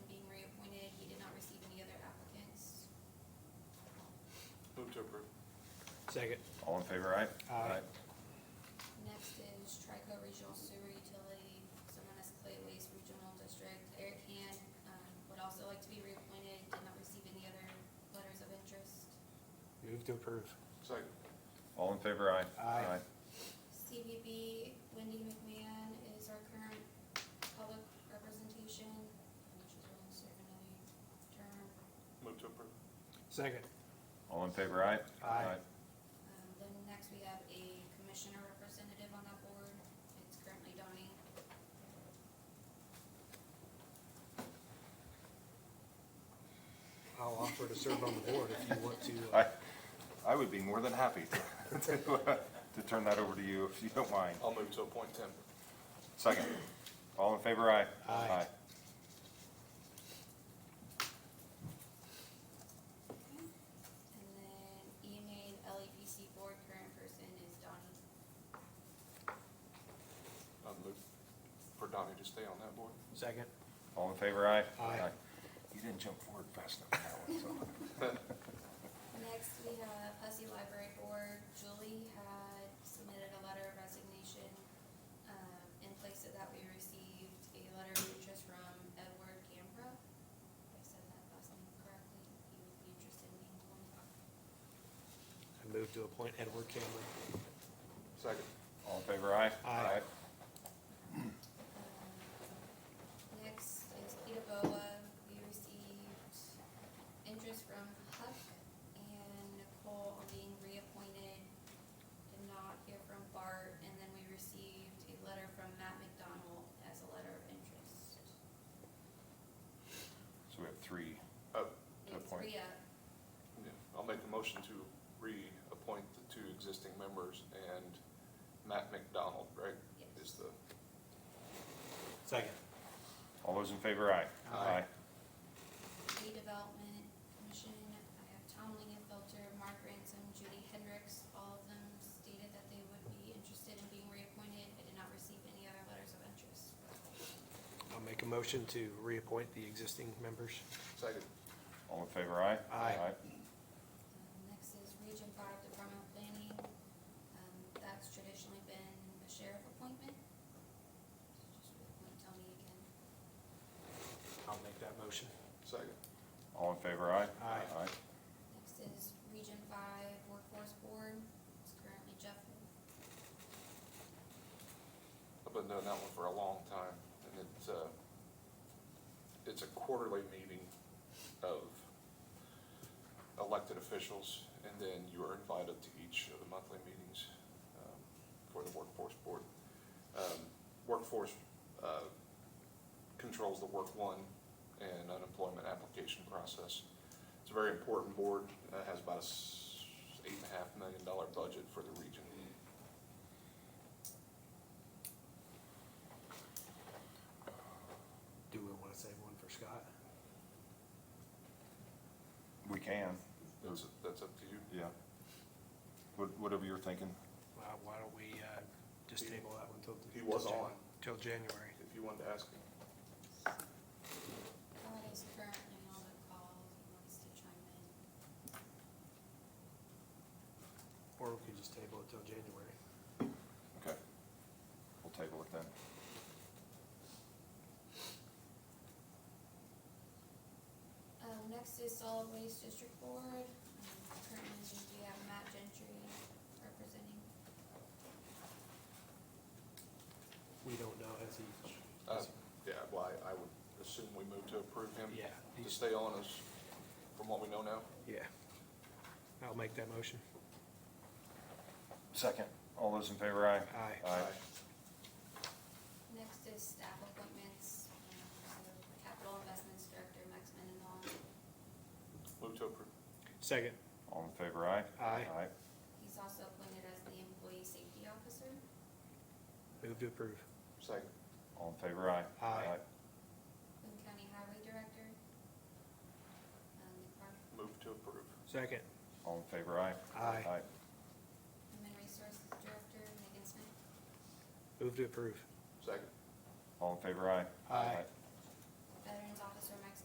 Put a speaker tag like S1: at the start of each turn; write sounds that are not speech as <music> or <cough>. S1: approve.
S2: Second.
S3: All in favor, aye?
S2: Aye.
S4: Next is Trico Regional Sewer Utility, someone as Clay Waste Regional District. Eric Hand um, would also like to be reappointed, did not receive any other letters of interest.
S2: Move to approve.
S1: Second.
S3: All in favor, aye?
S2: Aye.
S4: CVB, Wendy McMahon is our current public representation, and she's willing to serve another term.
S1: Move to approve.
S2: Second.
S3: All in favor, aye?
S2: Aye.
S4: Um, Then next we have a commissioner representative on that board, it's currently Donnie.
S2: I'll offer to serve on the board if you want to. uh,
S3: I, I would be more than happy to, <laughs> to, uh, to turn that over to you if you don't mind.
S1: I'll move to appoint Tim.
S3: Second. All in favor, aye?
S2: Aye.
S4: And then E EMA and LEPC board, current person is Donnie.
S1: I'll move for Donnie to stay on that board.
S2: Second.
S3: All in favor, aye?
S2: Aye.
S3: You didn't jump forward fast enough on that one, so.
S4: Next, we have Hussey Library Board. Julie had submitted a letter of resignation. Um, in place of that, we received a letter of interest from Edward Gambra. If I said that last name correctly, he would be interested in being one.
S2: I move to appoint Edward Cameron.
S1: Second.
S3: All in favor, aye?
S2: Aye.
S4: Um, Next is Peter Boa. We received interest from Huck and Nicole on being reappointed. Did not hear from Bart, and then we received a letter from Matt McDonald as a letter of interest.
S3: So we have three.
S1: Uh,
S3: To
S4: It's
S3: appoint.
S4: re-up.
S1: yeah, I'll make a motion to reappoint the two existing members and Matt McDonald, right?
S4: Yes.
S1: Is the,
S2: Second.
S3: All those in favor, aye?
S2: Aye.
S4: Redevelopment Commission, I have Tom Lingenfelter, Mark Ransom, Judy Hendricks, all of them stated that they would be interested in being reappointed. I did not receive any other letters of interest.
S2: I'll make a motion to reappoint the existing members.
S1: second.
S3: All in favor, aye?
S2: Aye.
S4: Um, Next is Region Five Department of Planning. Um, That's traditionally been a sheriff appointment. Just reappoint Tony again.
S2: I'll make that motion.
S1: Second.
S3: All in favor, aye?
S2: Aye.
S4: Next is Region Five Workforce Board. It's currently Jeff.
S1: I've been doing that one for a long time, and it's, uh, it's a quarterly meeting of elected officials, and then you are invited to each of the monthly meetings, um, for the workforce board. Um, workforce, uh, controls the work one and unemployment application process. It's a very important board, uh, has about a s- eight and a half million dollar budget for the region.
S2: Do we want to save one for Scott?
S3: We can,
S1: That's, that's up to you.
S3: yeah. What- Whatever you're thinking.
S2: Why why don't we uh, just table that one till?
S1: He was
S2: till Jan-
S1: on.
S2: Till January.
S1: If you wanted to ask him.
S4: Todd is currently on the call. He wants to chime in.
S2: Or we could just table it till January.
S3: Okay. We'll table it then.
S4: Um, next is Solid Waste District Board. Um, Currently, we have Matt Gentry representing.
S2: We don't know as he.
S1: Uh, um,
S2: as he-
S1: Yeah, well, I, I would assume we move to approve him.
S2: Yeah.
S1: To stay on as, from what we know now.
S2: Yeah. I'll make that motion.
S3: Second. All those in favor, aye?
S2: Aye.
S3: Aye.
S4: Next is staff appointments, um, so Capital Investments Director Max Mendenhall.
S1: Move to approve.
S2: Second.
S3: All in favor, aye?
S2: Aye.
S3: Aye.
S4: He's also appointed as the Employee Safety Officer.
S2: Move to approve.
S1: Second.
S3: All in favor, aye?
S2: Aye.
S4: Boone County Highway Director. Um, Park
S1: Move to approve.
S2: Second.
S3: All in favor, aye?
S2: Aye.
S4: Human Resources Director Megan Smith.
S2: Move to approve.
S1: Second.
S3: All in favor, aye?
S2: Aye.